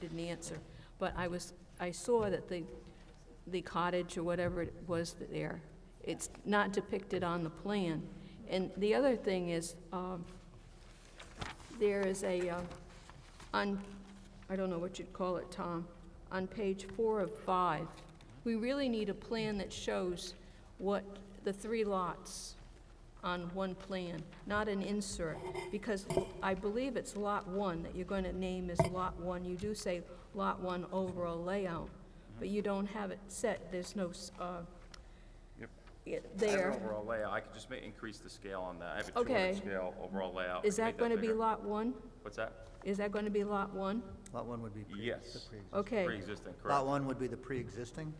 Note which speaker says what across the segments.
Speaker 1: didn't answer. But I was, I saw that the, the cottage or whatever it was there, it's not depicted on the plan. And the other thing is, um, there is a, uh, on, I don't know what you'd call it, Tom, on page four of five, we really need a plan that shows what, the three lots on one plan, not an insert, because I believe it's lot one that you're going to name as lot one. You do say lot one overall layout, but you don't have it set, there's no, s- uh,
Speaker 2: Yep.
Speaker 1: it
Speaker 2: I have an
Speaker 1: there.
Speaker 2: overall layout, I could just ma- increase the scale on that, I have a
Speaker 1: Okay.
Speaker 2: two-inch scale overall layout. I
Speaker 1: Is
Speaker 2: can make
Speaker 1: that going to be
Speaker 2: bigger.
Speaker 1: lot one?
Speaker 2: What's that?
Speaker 1: Is that going to be lot one?
Speaker 3: Lot one would be. pre- the
Speaker 2: Yes.
Speaker 3: pre-exist-
Speaker 1: Okay.
Speaker 2: Pre-existing,
Speaker 3: Lot
Speaker 2: correct.
Speaker 3: one would be the pre-existing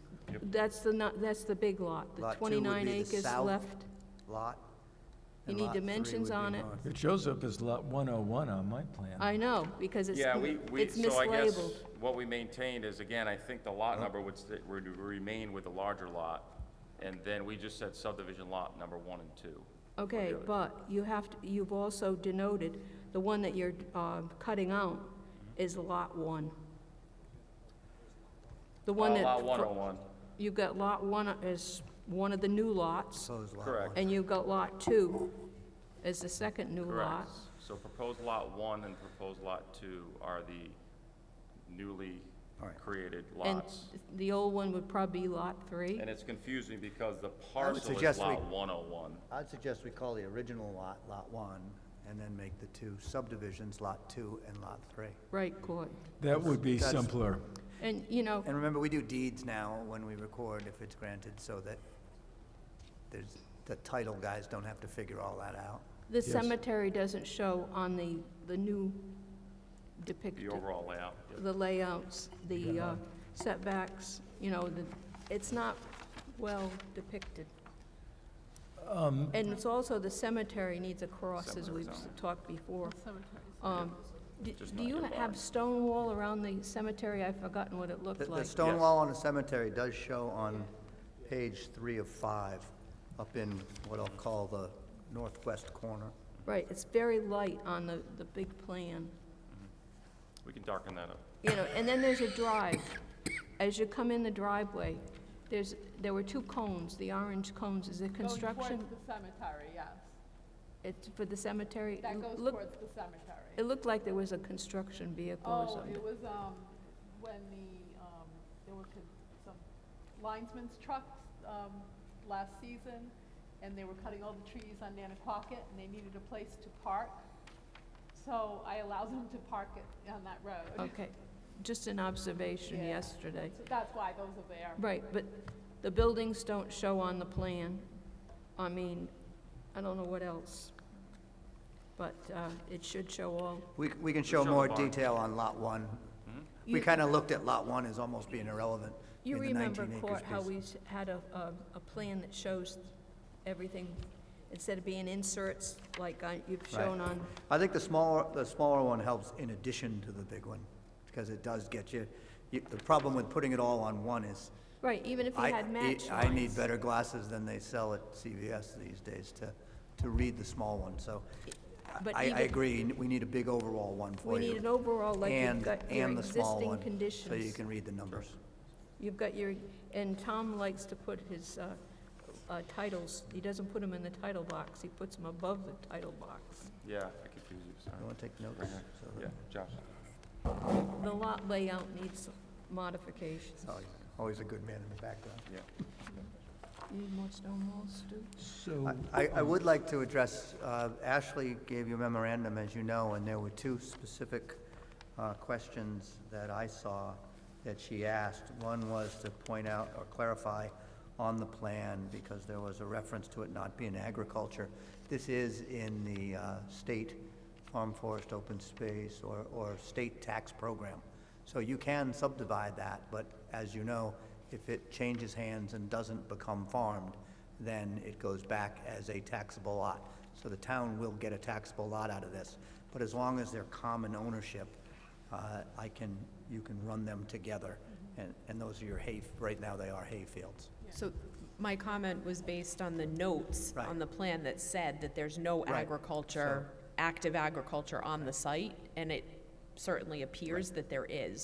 Speaker 1: That's the, not, that's the big lot, the
Speaker 3: Lot two would be
Speaker 1: 29
Speaker 3: the
Speaker 1: acres
Speaker 3: south.
Speaker 1: left.
Speaker 3: lot.
Speaker 1: You
Speaker 3: and
Speaker 1: need
Speaker 3: lot three
Speaker 1: dimensions
Speaker 3: would be
Speaker 1: on it.
Speaker 3: north.
Speaker 4: It shows up as lot 101 on my plan.
Speaker 1: I know, because it's,
Speaker 2: Yeah, we, we,
Speaker 1: it's
Speaker 2: so I guess
Speaker 1: mislabeled.
Speaker 2: what we maintained is, again, I think the lot number would, sta- would remain with the larger lot, and then we just said subdivision lot number one and two.
Speaker 1: Okay,
Speaker 2: other.
Speaker 1: but you have, to. you've also denoted, the one that you're uh, cutting out is Lot 1. The one
Speaker 2: Uh,
Speaker 1: that.
Speaker 2: Lot
Speaker 1: fr-
Speaker 2: one oh one,
Speaker 1: You've got Lot 1 as one of the new lots,
Speaker 3: Proposed lot
Speaker 2: Correct.
Speaker 3: one.
Speaker 1: and you've got Lot 2 as the second new lot.
Speaker 2: correct. So proposed lot one and proposed lot two are the newly
Speaker 3: All right.
Speaker 2: created
Speaker 1: And
Speaker 2: lots.
Speaker 1: the old one would probably be Lot 3.
Speaker 2: And it's confusing because the parcel is
Speaker 3: suggest we-
Speaker 2: lot one oh one.
Speaker 3: I'd suggest we call the original lot, lot one, and then make the two subdivisions, lot two and lot three.
Speaker 1: Right, Court.
Speaker 4: That would be
Speaker 3: That's-
Speaker 4: simpler.
Speaker 1: And, you know,
Speaker 3: And remember, we do deeds now when we record if it's granted, so that there's, the title guys don't have to figure all that out.
Speaker 1: the
Speaker 4: Yes.
Speaker 1: cemetery doesn't show on the, the new depicted.
Speaker 2: The overall layout, yeah.
Speaker 1: the layouts, the uh, setbacks, you know, the, it's not well depicted. And it's also the cemetery needs a cross, as we've s- talked before. Um, d-
Speaker 2: Just
Speaker 1: Do
Speaker 2: not
Speaker 1: you
Speaker 2: nearby.
Speaker 1: have stone wall around the cemetery? I've forgotten what it
Speaker 3: The,
Speaker 1: looked
Speaker 3: the
Speaker 1: like.
Speaker 3: stone
Speaker 2: Yes.
Speaker 3: wall on the cemetery does show on page three of five, up in what I'll call the northwest corner.
Speaker 1: Right, it's very light on the, the big plan,
Speaker 2: We can darken that up.
Speaker 1: you know, and then there's a drive. As you come in the driveway, there's, there were two cones, the orange cones, is it construction?
Speaker 5: Going towards the cemetery, yes.
Speaker 1: It's for the cemetery?
Speaker 5: That goes
Speaker 1: Look-
Speaker 5: towards the cemetery.
Speaker 1: It looked like there was a construction vehicle or
Speaker 5: Oh,
Speaker 1: something.
Speaker 5: it was, um, when the, um, there were con- some linesman's trucks, um, last season, and they were cutting all the trees on Nanaquacket, and they needed a place to park. So I allowed them to park it on that road.
Speaker 1: Okay, just an observation
Speaker 5: Yeah.
Speaker 1: yesterday.
Speaker 5: So That's why those are there.
Speaker 1: Right, but the buildings don't show on the plan. I mean, I don't know what else. But uh, it should show all.
Speaker 3: We, c- we can show
Speaker 2: show the
Speaker 3: more
Speaker 2: barn. Mm-hmm.
Speaker 3: detail on lot one. We
Speaker 1: You-
Speaker 3: kinda looked at lot one as almost being irrelevant.
Speaker 1: You
Speaker 3: in the
Speaker 1: remember,
Speaker 3: 19 acres
Speaker 1: Court, how
Speaker 3: piece.
Speaker 1: we s- had a, a, a plan that shows everything, instead of being inserts like uh, you've
Speaker 3: Right.
Speaker 1: shown on,
Speaker 3: I think the smaller, the smaller one helps in addition to the big one, because it does get you, you, the problem with putting it all on one is,
Speaker 1: right, even if you
Speaker 3: I,
Speaker 1: had match
Speaker 3: I I need
Speaker 1: lines.
Speaker 3: better glasses than they sell at CVS these days to, to read the small one, so I-
Speaker 1: But
Speaker 3: I, I
Speaker 1: even-
Speaker 3: agree, we need a big overall one for
Speaker 1: We
Speaker 3: you.
Speaker 1: need an overall, like you've
Speaker 3: And,
Speaker 1: got your
Speaker 3: and the small
Speaker 1: existing
Speaker 3: one,
Speaker 1: conditions.
Speaker 3: so you can read the numbers.
Speaker 1: You've got your, and Tom likes to put his uh, uh, titles, he doesn't put them in the title box, he puts them above the title box.
Speaker 2: Yeah, I confused you,
Speaker 3: You
Speaker 2: sorry.
Speaker 3: wanna take notes? so that-
Speaker 2: Yeah, Josh.
Speaker 1: The lot layout needs modifications.
Speaker 3: sorry, Always a good man in the background.
Speaker 2: Yeah.
Speaker 1: You need more stone walls, Stu?
Speaker 4: So,
Speaker 3: I, I would like to address, uh, Ashley gave you a memorandum, as you know, and there were two specific uh, questions that I saw that she asked. One was to point out or clarify on the plan, because there was a reference to it not being agriculture. This is in the uh, state farm forest open space or, or state tax program. So you can subdivide that, but as you know, if it changes hands and doesn't become farmed, then it goes back as a taxable lot. So the town will get a taxable lot out of this, but as long as they're common ownership, uh, I can, you can run them together, and, and those are your hay, right now they are hay fields.
Speaker 6: So my comment was based on the notes
Speaker 3: Right.
Speaker 6: on the plan that said that there's no
Speaker 3: Right.
Speaker 6: agriculture, active agriculture on the site, and it certainly appears that there is.